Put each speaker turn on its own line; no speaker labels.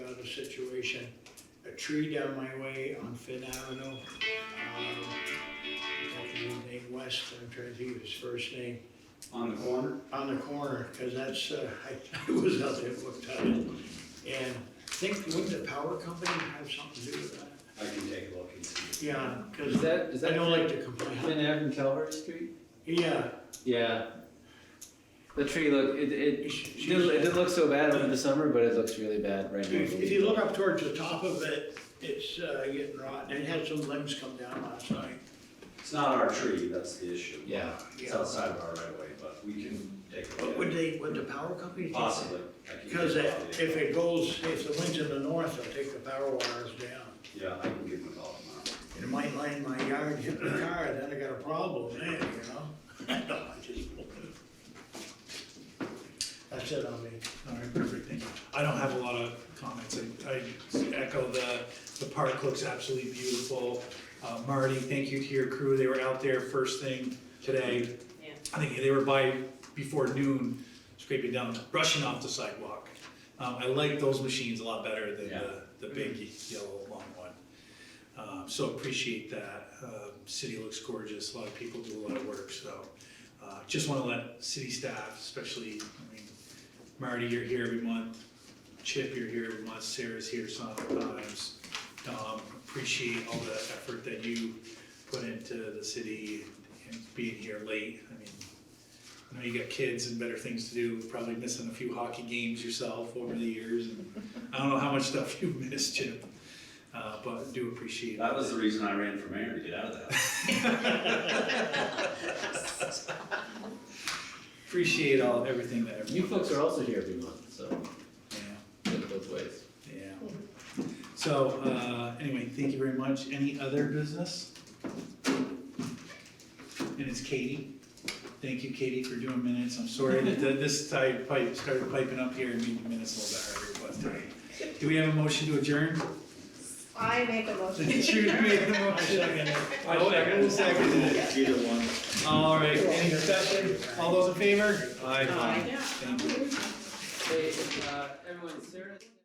situation. A tree down my way on Finn Avenue. um, Deputy named West, I'm trying to think of his first name,
on the corner.
on the corner, because that's, uh, I I was out there, looked at it. And think, wouldn't the power company have something to do with that?
I can take a look and see.
Yeah,
Is
because
that, is
I
that
don't like to complain.
Finn Ave and Calvert Street?
Yeah,
Yeah. The tree look, it, it,
She-
it
she's-
didn't, it didn't look so bad over the summer, but it looks really bad right now.
If if you look up towards the top of it, it's uh, getting rotten, it had some limbs come down last night.
It's not our tree, that's the issue.
Yeah,
It's outside of our right of way, but we can take a
But
look.
Would
at it.
they, would the power company? take it?
Possibly. I can
Because
give
it-
them a call.
if it goes, if the wind's in the north, it'll take the power wires down.
Yeah, I can give them a call tomorrow.
It might land my yard, hit my car, then I got a problem there, you know? No, I just- That's it on me.
All right, perfect, thank you. I don't have a lot of comments, I- I echo the, the park looks absolutely beautiful. Uh, Marty, thank you to your crew, they were out there first thing today.
Yeah.
I think they were by before noon scraping down, brushing off the sidewalk. Um, I like those machines a lot better than the, the big yellow long one. Um, so appreciate that, uh, city looks gorgeous, a lot of people do a lot of work, so. Uh, just wanna let city staff, especially, I mean, Marty, you're here every month. Chip, you're here every month. Sarah's here sometimes. Um, appreciate all the effort that you put into the city and being here late. I mean, I know you got kids and better things to do, probably missing a few hockey games yourself over the years. and I don't know how much stuff you've missed, Chip, uh, but do appreciate it.
That was the reason I ran for mayor, to get out of that.
Appreciate all, everything that
you
everyone.
folks
does.
are also here every month, so
Yeah.
look both ways.
Yeah. So, uh, anyway, thank you very much. Any other business? And it's Katie. Thank you, Katie, for doing minutes. I'm sorry that that this type pipe started piping up here and made the minutes a little bit harder, but uh, do we have a motion to adjourn?
I make a motion.
Jude made the motion.
I second it.
Who seconded it?
Either one.
All right, any discussion? All those in favor?
Aye.
Thank you.
Hey, uh, everyone, Sarah.